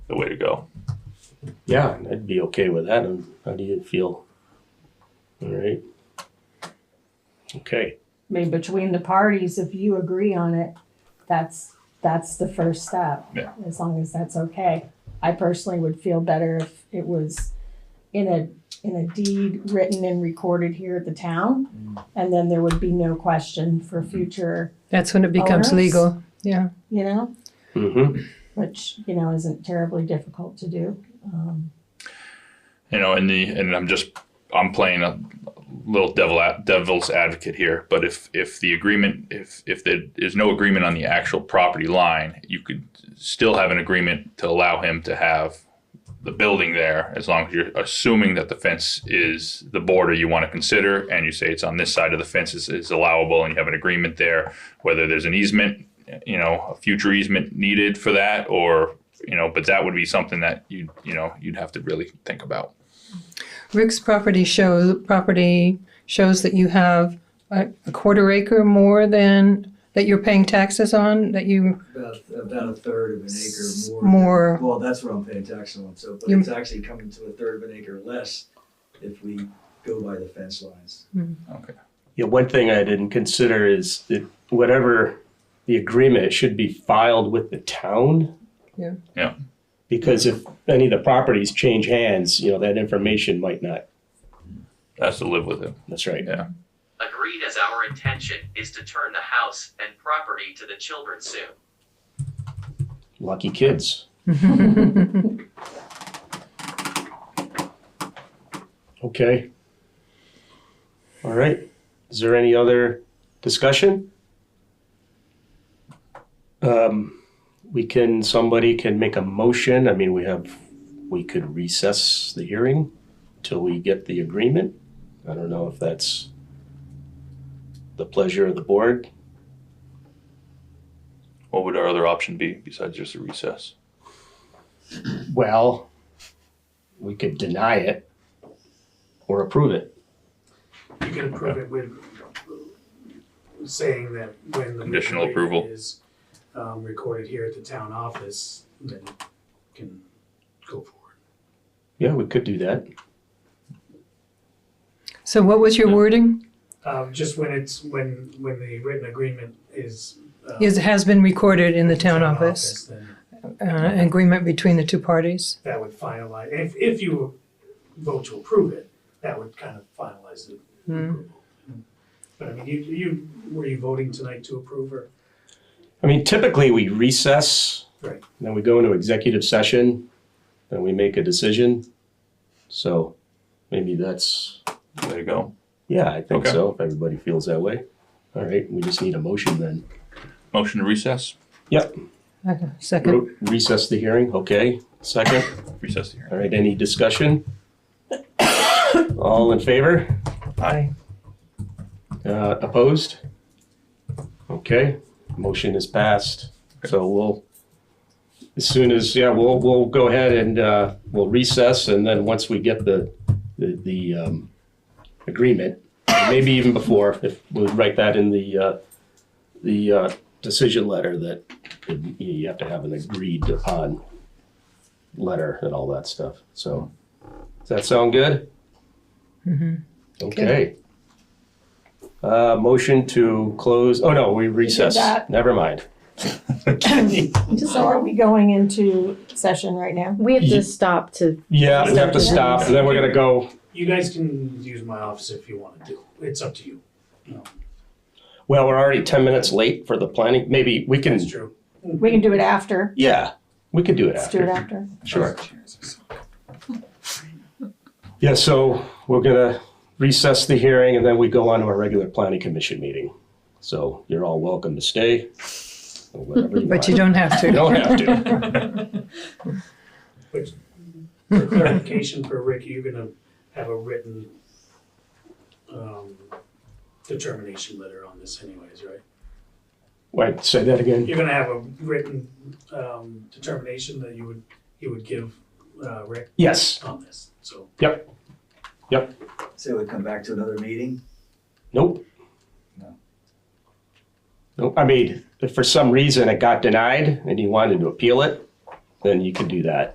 the way to go. Yeah, I'd be okay with that. And how do you feel? All right. Okay. I mean, between the parties, if you agree on it, that's, that's the first step. Yeah. As long as that's okay. I personally would feel better if it was in a, in a deed written and recorded here at the town. And then there would be no question for future, That's when it becomes Owners? legal. Yeah. you know, Mm-hmm. which, you know, isn't terribly difficult to do. Um, You know, and the and I'm just I'm playing a little devil ad- devil's advocate here, but if if the agreement if if there is no agreement on the actual property line, you could still have an agreement to allow him to have the building there as long as you're assuming that the fence is the border you want to consider and you say it's on this side of the fence is, is allowable and you have an agreement there whether there's an easement you know a future easement needed for that or you know but that would be something that you you know you'd have to really think about Rick's property shows property shows that you have a, a quarter acre more than that you're paying taxes on that you About, about a third of an acre more. more. Well, that's what I'm paying tax on, so, but You- it's actually coming to a third of an acre less if we go by the fence lines. okay Yeah, one thing I didn't consider is that whatever the agreement it should be filed with the town. Yeah. Yeah. Because if any of the properties change hands, you know, that information might not. that's to live with it That's right. yeah Agreed as our intention is to turn the house and property to the children soon. Lucky kids. Okay. All right. Is there any other discussion? Um, we can, somebody can make a motion. I mean, we have, we could recess the hearing till we get the agreement. I don't know if that's the pleasure of the board. what would our other option be besides just a recess Well, we could deny it or approve it. You can approve it with saying that when the. Conditional approval. Is um, recorded here at the town office, then you can go forward. Yeah, we could do that. So what was your wording? Um, just when it's, when, when the written agreement is. um, Is has been recorded in the town office. Then Uh, an agreement between the two parties. that would finalize, if, if you vote to approve it, that would kind of finalize the Hmm. approval. But I mean, you, you, were you voting tonight to approve or? I mean, typically we recess. Right. Then we go into executive session, then we make a decision. So maybe that's, there you go yeah, I think Okay. so, if everybody feels that way. All right, we just need a motion then. motion to recess Uh, Second. Re- Recess the hearing, okay, second. recess the hearing All right, any discussion? All in favor? Aye. Uh, opposed? Okay, motion is passed. So we'll, as soon as, yeah, we'll, we'll go ahead and, uh, we'll recess and then once we get the, the, the, um, agreement, maybe even before, if we'll write that in the, uh, the, uh, decision letter that you- you have to have an agreed upon letter and all that stuff. So, does that sound good? Mm-hmm. Okay. Uh, motion to close, oh no, we recess. that. Never mind. So are we going into session right now? We have Ye- to stop to, Yeah, we have to Yeah. stop, and then we're gonna go, You guys can use my office if you want to do, it's up to you, well, we're already ten minutes late for the planning, maybe we can, it's true. We can do it after. yeah, we could do it Let's do it after, after. sure. Yeah, so we're gonna recess the hearing, and then we go on to our regular planning commission meeting. So you're all welcome to stay, or whatever you But you want. don't have to. You don't have to. Which, for clarification for Rick, you're gonna have a written, um, determination letter on this anyways, right? Wait, say that again? You're gonna have a written, um, determination that you would, you would give, uh, Rick Yes, on this, so. So we come back to another meeting? nope. No. Nope, I mean, if for some reason it got denied and you wanted to appeal it, then you could do that.